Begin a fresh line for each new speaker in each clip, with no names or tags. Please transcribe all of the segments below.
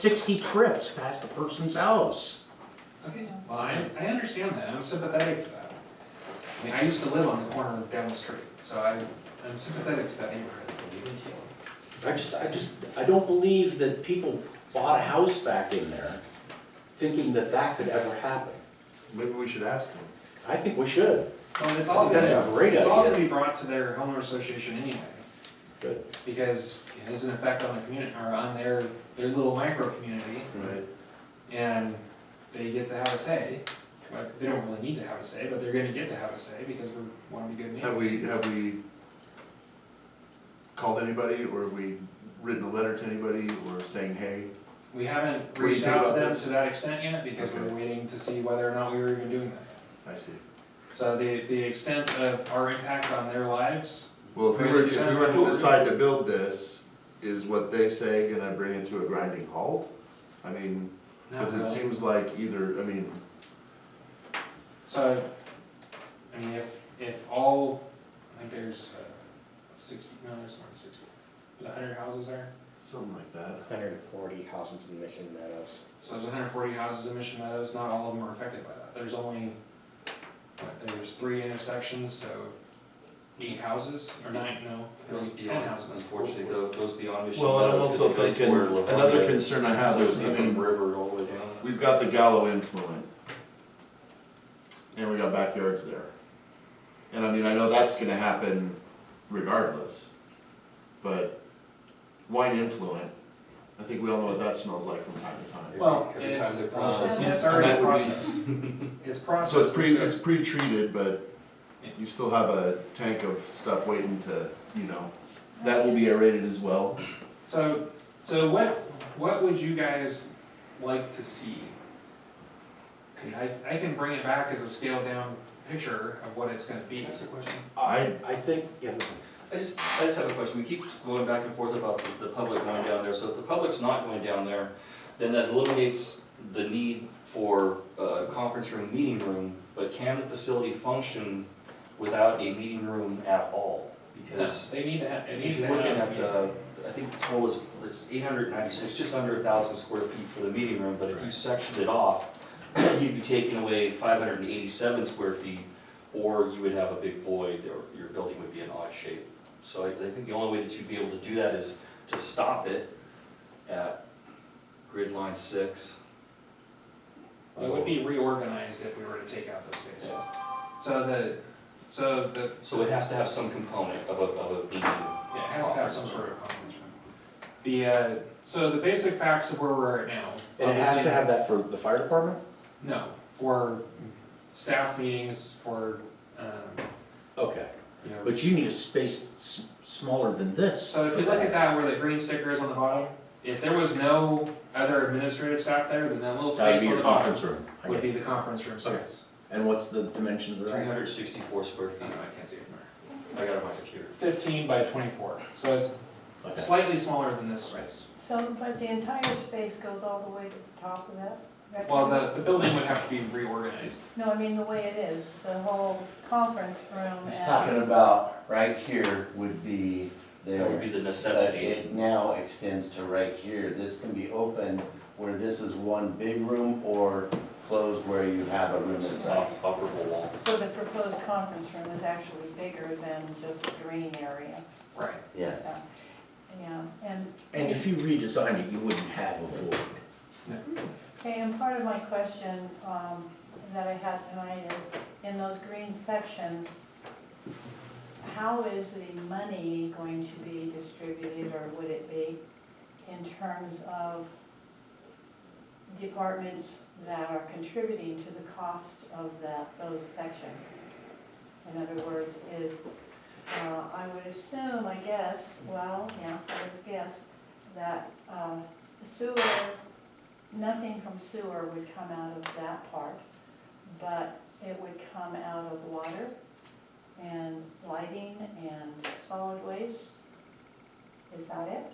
60 trips past the person's house.
Okay, well, I, I understand that, I'm sympathetic to that. I mean, I used to live on the corner of down the street, so I, I'm sympathetic to that neighborhood.
I just, I just, I don't believe that people bought a house back in there thinking that that could ever happen.
Maybe we should ask him.
I think we should.
Well, it's
I
all
think that's a
gonna,
great
it's all
idea.
gonna be brought to their homeowner association anyway,
Good.
because it has an effect on the community, or on their, their little micro community,
Hmm.
Right.
and they get to have a say. Like, they don't really need to have a say, but they're gonna get to have a say because we wanna be good neighbors.
Have we, have we called anybody or have we written a letter to anybody or saying, hey?
We haven't
do you
reached
think
out to
about
them
this?
to that extent yet, because we're
Okay.
waiting to see whether or not we were even doing that.
I see.
So the, the extent of our impact on their lives,
Well, if we were, if we
Depends
were
on who
to
we're-
decide to build this, is what they say gonna bring it to a grinding halt? I mean,
not
cause it
really.
seems like either, I mean,
So, I mean, if, if all, I think there's uh, sixty, no, there's more than sixty, a hundred houses there.
something like that.
Hundred and forty houses in Mission Meadows.
So there's hundred forty houses in Mission Meadows, not all of them are affected by that. There's only, what, there's three intersections, so eight houses, or nine, no,
Goes
maybe ten
beyond,
houses.
unfortunately, go- goes beyond Mission
Well, and I'm
Meadows, 'cause
also
it goes to
thinking,
where Livonia
another concern I have
So it'd
is,
be
I
from
mean,
River all the way down.
we've got the Gallo influent. And we got backyards there. And I mean, I know that's gonna happen regardless. But wine influent, I think we all know what that smells like from time to time.
Well,
Every time
it's,
they
uh,
process
yeah, it's
it.
already
And that would be-
processed. It's processed.
So it's pre,
so-
it's pre-treated, but you still have a tank of stuff waiting to, you know, that will be aerated as well.
So, so what, what would you guys like to see? 'Cause I, I can bring it back as a scaled down picture of what it's gonna be.
That's the question.
I,
I think, yeah,
I just, I just have a question, we keep going back and forth about the, the public going down there, so if the public's not going down there, then that eliminates the need for a conference room, meeting room, but can the facility function without a meeting room at all? Because
They need to have, it needs
If
to
you're
have.
looking at, uh, I think the total is, it's eight hundred ninety-six, just under a thousand square feet for the meeting room, but if you sectioned it off, you'd be taking away five hundred and eighty-seven square feet, or you would have a big void, or your building would be an odd shape. So I, I think the only way that you'd be able to do that is to stop it at grid line six.
uh,
It would be reorganized if we were to take out those spaces. So the, so the,
So it has to have some component of a, of a meeting.
yeah, it has to have some sort of conference room. The, uh, so the basic facts of where we're at now.
and it has
obviously-
to have that for the fire department?
No, for staff meetings, for, um,
Okay,
you know,
but you need a space s- smaller than this.
So if
for
you look at that where the green sticker is on the bottom, if there was no other administrative staff there, then that little
That would
space
be
on
your
the bottom
conference room. I
would
get it.
be the conference room
Okay.
space.
And what's the dimensions of
Three
that?
hundred sixty-four square
I don't know,
feet,
I can't see it from there.
I got it on my computer.
Fifteen by twenty-four, so it's
Okay.
slightly smaller than this space.
So, but the entire space goes all the way to the top of that?
Well, the, the building would have to be reorganized.
No, I mean, the way it is, the whole conference room
He's
and,
talking about right here would be
That would
there,
be the
but
necessity.
it now extends to right here. This can be open where this is one big room or closed where you have a room
It's
itself.
not operable wall.
so the proposed conference room is actually bigger than just the green area.
Right.
Yeah,
Yeah, Yeah, and,
And if you redesign it, you wouldn't have a void.
okay, and part of my question, um, that I had tonight is, in those green sections, how is the money going to be distributed, or would it be, in terms of departments that are contributing to the cost of that, those sections? In other words, is, uh, I would assume, I guess, well, yeah, I would guess, that uh, sewer, nothing from sewer would come out of that part, but it would come out of water and lighting and solid waste. Is that it?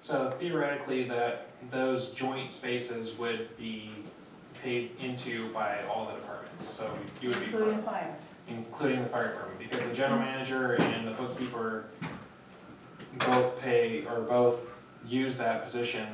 So theoretically, that, those joint spaces would be paid into by all the departments, so you would be.
Including fire.
including the fire department, because the general manager and the bookkeeper both pay, or both use that position